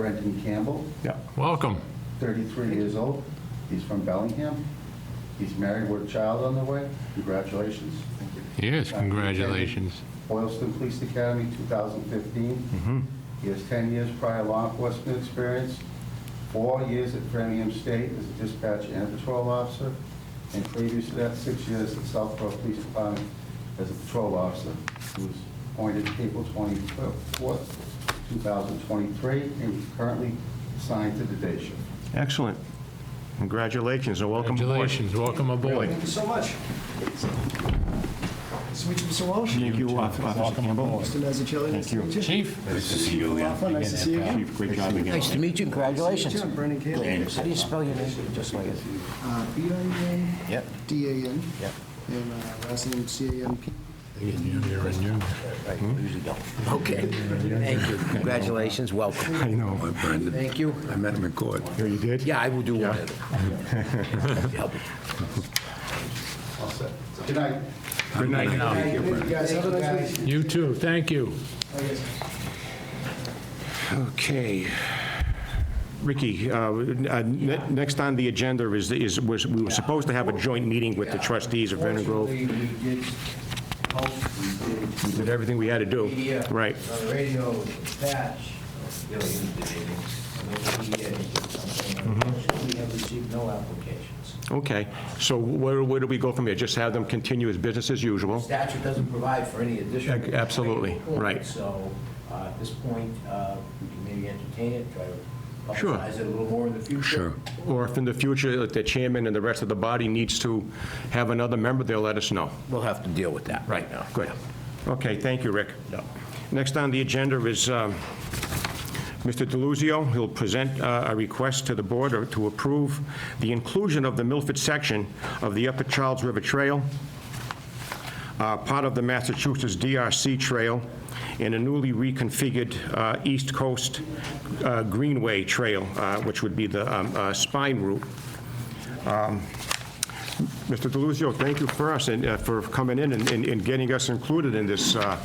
Brendan Campbell, Yeah, welcome. 33 years old. He's from Bellingham. He's married with a child on the way. Congratulations. Yes, congratulations. Boylston Police Academy, 2015. He has 10 years prior law enforcement experience, four years at Framingham State as a dispatcher and patrol officer, and previous to that, six years at Southborough Police Department as a patrol officer. He was appointed April 24th, 2023, and is currently assigned to the day shift. Excellent. Congratulations and welcome aboard. Congratulations, welcome aboard. Thank you so much. Nice to meet you, Mr. Walsh. Thank you, uh, Officer Campbell. Mr. Mazzucchelli, nice to meet you. Chief? Nice to see you again. Nice to see you again. Chief, great job again. Nice to meet you, congratulations. John Brennan Campbell. How do you spell your name, just like it? Uh, B-I-N, Yep. D-A-N. Yep. And uh, last name C-A-M-P. Right, usually don't. Hmm? Okay, thank you, congratulations, welcome. I know. Hi, Brendan. Thank you. I met him in court. Here you did? Yeah, I will do one. Help. All set. Good night. Good night. Thank you, Thank you, Brendan. guys. Oh, Have a nice week. You too, thank you. Bye, guys. Okay. Ricky, uh, uh, ne- next on the agenda is, is, was, we were supposed to have a joint meeting with the trustees of Vernon Grove. Unfortunately, we did, hope we did. We did everything we had to do. Media, Right. on uh, the radio, dispatch, really intimidating. And the media did something. Mm-hmm. Unfortunately, We have received no applications. Okay. So where, where do we go from here? Just have them continue as business as usual? Statute doesn't provide for any Ac- additional. absolutely, right. So uh, at this point, uh, we can maybe entertain it, try to Sure. publicize it a little more in the future. Sure. Or if in the future, if the chairman and the rest of the body needs to have another member, they'll let us know. We'll have to deal with that right now. Good. Okay, thank you, Rick. Next on the agenda is um, Mr. Deluzio. He'll present uh, a request to the board or to approve the inclusion of the Milford section of the Upper Charles River Trail, uh, part of the Massachusetts DRC Trail, and a newly reconfigured uh, East Coast uh, Greenway Trail, uh, which would be the um, uh, spine route. Mr. DeLuzio, thank you first, and uh, for coming in and- and and getting us included in this uh,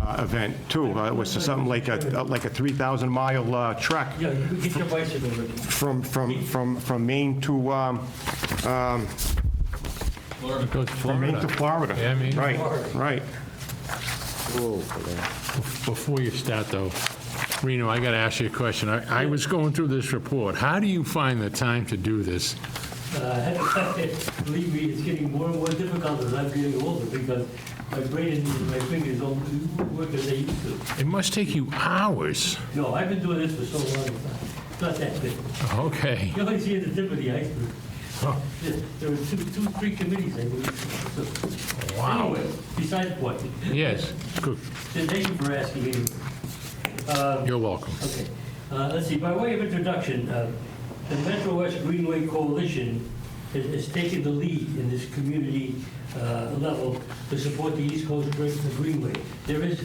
uh, event, too. Uh, It was something like a, like a 3,000-mile uh, trek Yeah, you get your bicycle ready. from, from, from from Maine to, um, Go to from Maine to Florida. Florida. Yeah, Maine to Right, right. Before you start, though, Reno, I got to ask you a question. I I was going through this report. How do you find the time to do this? Uh, Believe me, it's getting more and more difficult as I'm getting older because my brain and my fingers don't work as they used to. It must take you hours. No, I've been doing this for so long, it's not that big. Okay. You only see the tip of the iceberg. There- There were two, two, three committees, I believe. So, Wow. Anyway, besides the point, Yes, good. thank you for asking me. Um, You're welcome. Okay, Uh, let's see, by way of introduction, uh, the Metro West Greenway Coalition has- has taken the lead in this community uh, level to support the East Coast Green- the Greenway. There is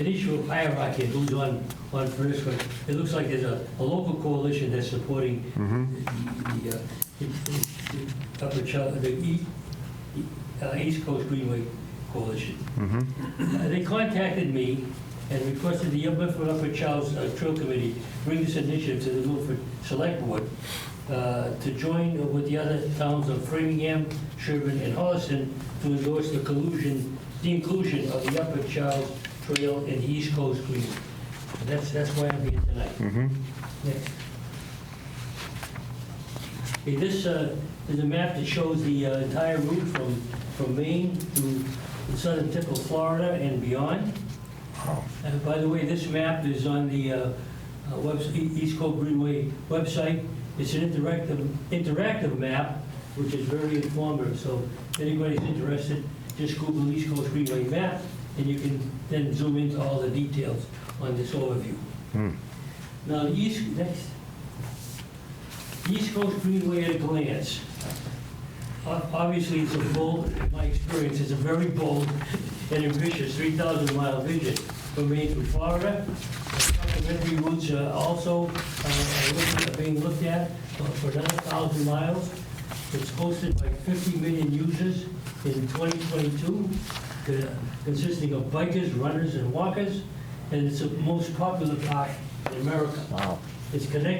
an issue of hierarchy and who's on, on first, but it looks like there's a, a local coalition that's supporting the- the, uh, the- the Upper Char- the E- E- uh, East Coast Greenway Coalition. Uh, They contacted me and requested the Milford Upper Charles uh, Trail Committee bring this initiative to the Milford Select Board uh, to join with the other towns of Framingham, Sherburne, and Holliston to endorse the collusion, the inclusion of the Upper Charles Trail in the East Coast Green. And That's, that's why I'm here tonight. Next. Okay, This uh, is a map that shows the uh, entire route from, from Maine to the southern tip of Florida and beyond. And by the way, this map is on the uh, uh, webs- E- East Coast Greenway website. It's an interactive, interactive map, which is very informative, so if anybody's interested, just Google East Coast Greenway map, and you can then zoom into all the details on this overview. Now, the East, next. East Coast Greenway at a glance. O- Obviously, it's a bold, in my experience, it's a very bold and ambitious 3,000-mile vision from Maine to Florida. Supplementary routes are also uh, are look- are being looked at for another 1,000 miles. It's hosted by 50 million users in 2022, uh, consisting of bikers, runners, and walkers, and it's the most popular park in America. Wow. It's connected